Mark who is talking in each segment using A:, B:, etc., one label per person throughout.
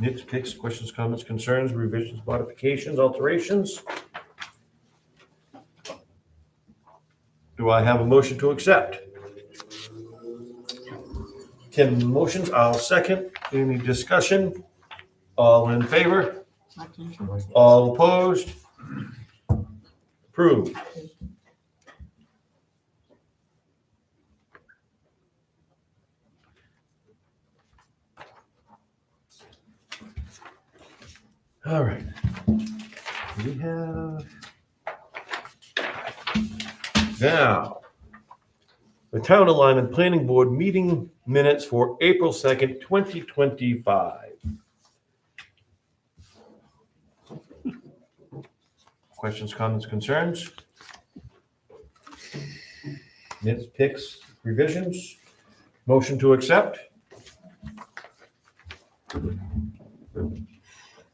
A: nitpicks, questions, comments, concerns, revisions, modifications, alterations? Do I have a motion to accept? Ten motions, I'll second. Any discussion? All in favor? All opposed? Approved. All right. We have. Now, the Town Alignment Planning Board meeting minutes for April 2nd, 2025. Questions, comments, concerns? Nits, picks, revisions? Motion to accept?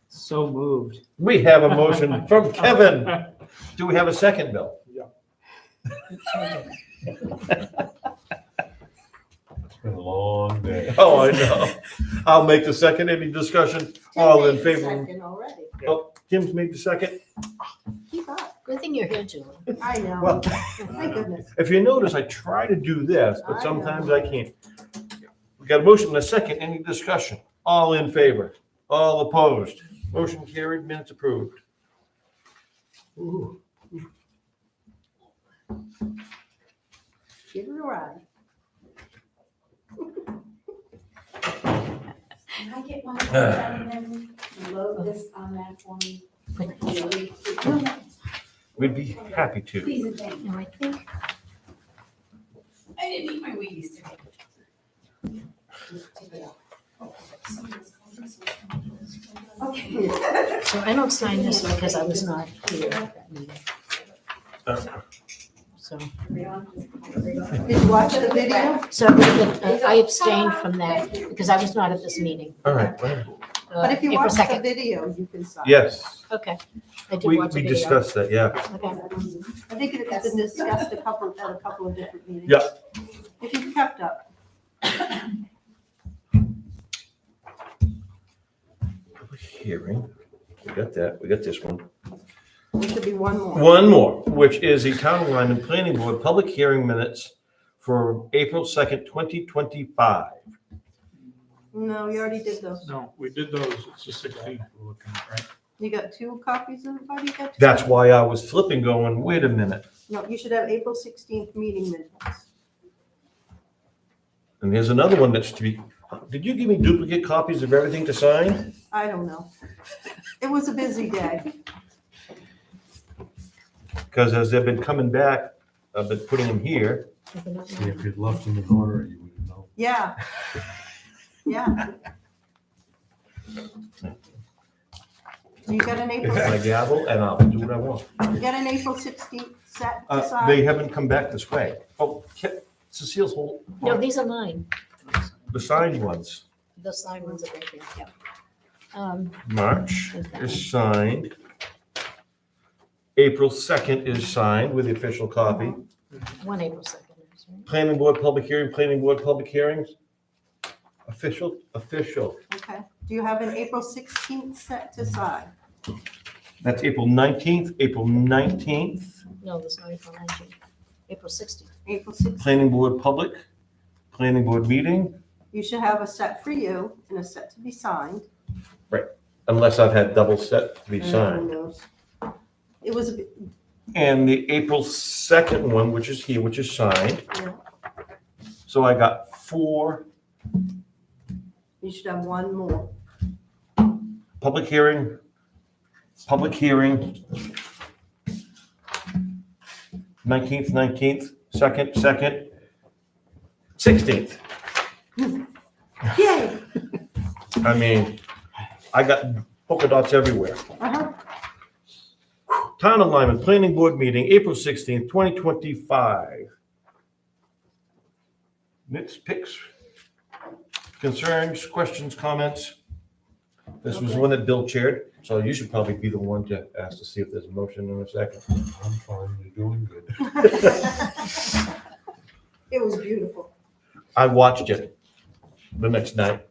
B: So moved.
A: We have a motion from Kevin. Do we have a second, Bill?
C: Yeah.
D: It's been a long day.
A: Oh, I know. I'll make the second. Any discussion? All Oh, in
E: Ten days
A: favor?
E: second Already.
A: Jim's made the second.
E: Keep up. Good thing you're here, Julie. I know.
A: Well,
E: My goodness.
A: if you notice, I try to do this,
E: I
A: but
E: know.
A: sometimes I can't. We got a motion and a second. Any discussion? All in favor? All opposed? Motion carried, minutes approved.
E: Give it a ride.
F: Can I get one of the gentlemen to load this on that for me?
A: We'd be happy to.
F: Please and thank you.
E: No, I think
F: I didn't eat my Wheaties today. Take it out. Okay.
E: So I don't sign this one because I was not here at that meeting. So,
F: Did you watch the video?
E: so I'm gonna- uh, I abstained from that because I was not at this meeting.
A: All right.
E: uh,
G: But if you
E: April
G: watch the
E: 2nd.
G: video, you can sign.
A: Yes,
E: Okay. I did
A: we,
E: watch the
A: we
E: video.
A: discussed that, yeah.
E: Okay.
G: I think it's been discussed a couple, at a couple of different meetings.
A: Yeah.
G: If you've kept up,
A: Hearing. We got that. We got this one.
G: there should be one more.
A: One more, which is the town line and planning board public hearing minutes for April 2nd, 2025.
G: No, you already did those.
C: No, we did those, it's the sixteenth we're looking at, right?
G: You got two copies of it, buddy? You got two?
A: That's why I was flipping going, wait a minute.
G: No, you should have April 16th meeting minutes.
A: And here's another one that's to be, did you give me duplicate copies of everything to sign?
G: I don't know. It was a busy day.
A: Because as they've been coming back, I've been putting them here.
D: See, if you'd left in the corner, you would have known.
G: Yeah. Yeah. So you got an
A: It's
G: April,
A: my
G: you
A: gavel and I'll do what I want.
G: got an April 16th set to
A: Uh, They
G: sign?
A: haven't come back this way. Oh, Ke- Cecile's whole,
E: No, these are mine.
A: the signed ones.
E: The signed ones are right there. Yeah. Um,
A: March
E: Is that-
A: is signed. April 2nd is signed with the official copy.
E: one April 2nd. is, right?
A: Planning board public hearing, planning board public hearings. Official, official.
G: Okay. Do you have an April 16th set to sign?
A: That's April 19th, April 19th,
E: No, there's no April 19th. April 16th.
G: April 16th.
A: planning board public, planning board meeting,
G: You should have a set for you and a set to be signed.
A: unless I've had double set to be
G: Who
A: signed.
G: knows? It was, a bit-
A: And the April 2nd one, which is here, which is signed.
G: Yeah.
A: So I got four,
G: you should have one more.
A: public hearing, public hearing. 19th, 19th, 2nd, 2nd, 16th.
G: Yay!
A: I mean, I got polka dots everywhere.
G: Uh-huh.
A: Town alignment, planning board meeting, April sixteenth, twenty twenty-five. Nits, picks, concerns, questions, comments? This was one that Bill chaired, so you should probably be the one to ask to see if there's a motion in a second.
D: I'm fine, you're doing good.
G: It was beautiful.
A: I watched it the next night.